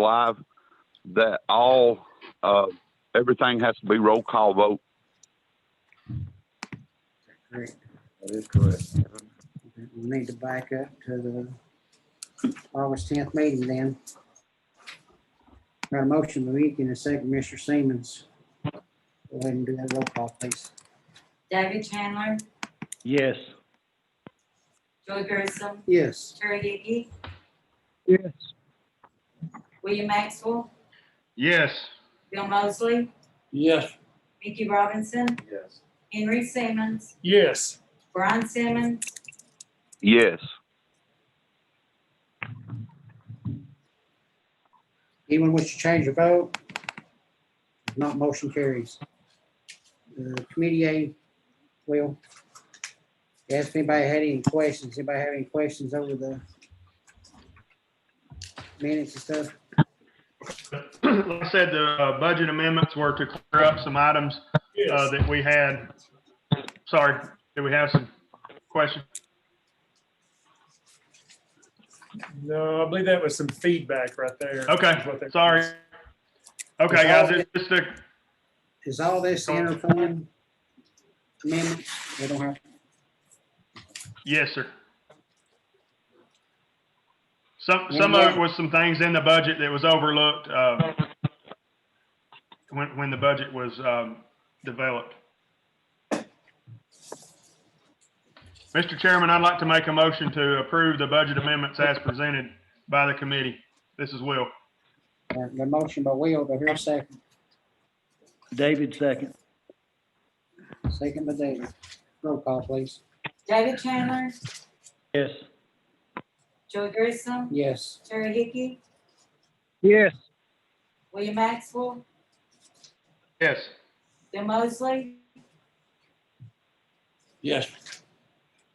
live that all, uh, everything has to be roll call vote. Great. That is correct. We need to back up to the August tenth meeting then. Got a motion, Lewinsky, and a second, Mr. Siemens. Go ahead and do that roll call, please. David Chandler, Yes. Joey Grissom, Yes. Terry Hickey, Yes. William Maxwell, Yes. Bill Mosley, Yes. Mickey Robinson, Yes. Henry Simmons, Yes. Brian Simmons, Yes. Anyone wish to change your vote? If Not motion carries. Uh, Committee A, Will. Ask anybody had any questions, anybody have any questions over the minutes and stuff? like I said, the uh, budget amendments were to clear up some items uh, that we had. Sorry, did we have some questions? No, I believe that was some feedback right there. Okay, Is what that sorry. was. Okay, guys, it's just a, Is all this interfund amendment? We don't have, yes, sir. Some, some of it was some things in the budget that was overlooked uh, when, when the budget was um, developed. Mr. Chairman, I'd like to make a motion to approve the budget amendments as presented by the committee. This is Will. uh, the motion by Will, but here second, David second. second by David. Roll call, please. David Chandler, Yes. Joey Grissom, Yes. Terry Hickey, Yes. William Maxwell, Yes. Bill Mosley, Yes.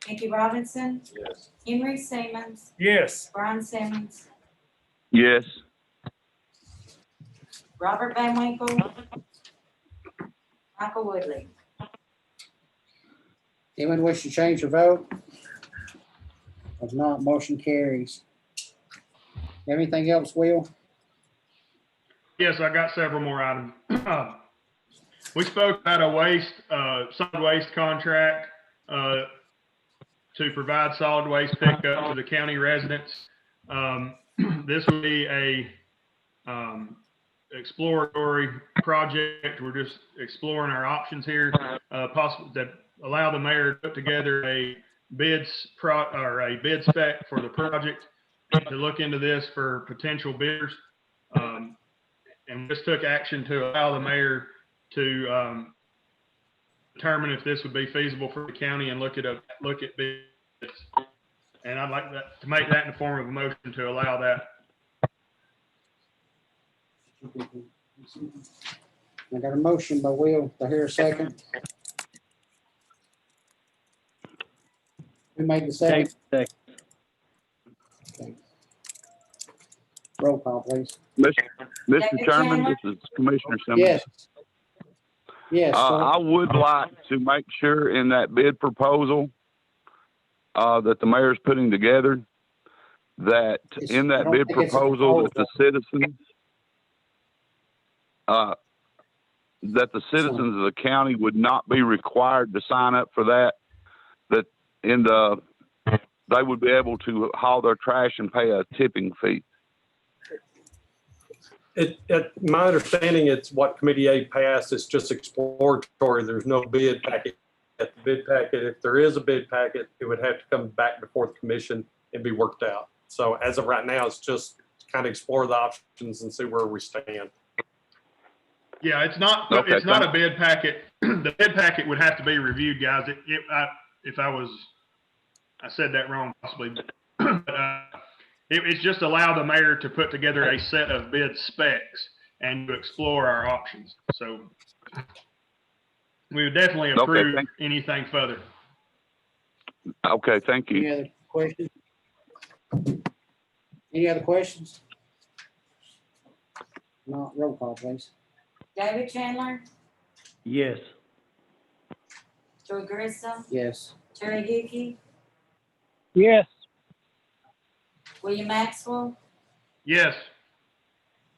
Mickey Robinson, Yes. Henry Simmons, Yes, Brian Simmons, Yes. Robert Van Winkle, Michael Woodley. Anyone wish to change your vote? If not, motion carries. Anything else, Will? Yes, I got several more items. We spoke about a waste, uh, solid waste contract, uh, to provide solid waste pickup to the county residents. Um, this will be a, um, exploratory project. We're just exploring our options here. Uh, possible that allow the mayor to put together a bids pro, or a bid spec for the project to look into this for potential bidders. Um, and just took action to allow the mayor to um, determine if this would be feasible for the county and look at a, look at bids. And I'd like that, to make that in the form of a motion to allow that. I got a motion by Will, do I hear a second? Who made the second? David second. Roll call, please. Mr. Second, Mr. Chairman, Chandler? this is Commissioner Simmons. Yes. Yes, Uh, sir. I would like to make sure in that bid proposal, uh, that the mayor's putting together, that It's- in I that don't bid think it's a proposal, that the citizens, uh, that the citizens of the county would not be required to sign up for that, that in the, they would be able to haul their trash and pay a tipping fee. It, it, my understanding, it's what Committee A passed, it's just exploratory, there's no bid packet. At the bid packet, if there is a bid packet, it would have to come back before the commission and be worked out. So as of right now, it's just kind of explore the options and see where we stand. Yeah, it's not, Okay, it's not a bid packet. The bid packet would have to be reviewed, guys. It, it, I, if I was, I said that wrong possibly. but, uh, It, it's just allow the mayor to put together a set of bid specs and to explore our options. So we would definitely Okay, approve thank- anything further. Okay, thank you. Any other questions? Any other questions? Not, roll call, please. David Chandler, Yes. Joey Grissom, Yes. Terry Hickey, Yes. William Maxwell, Yes.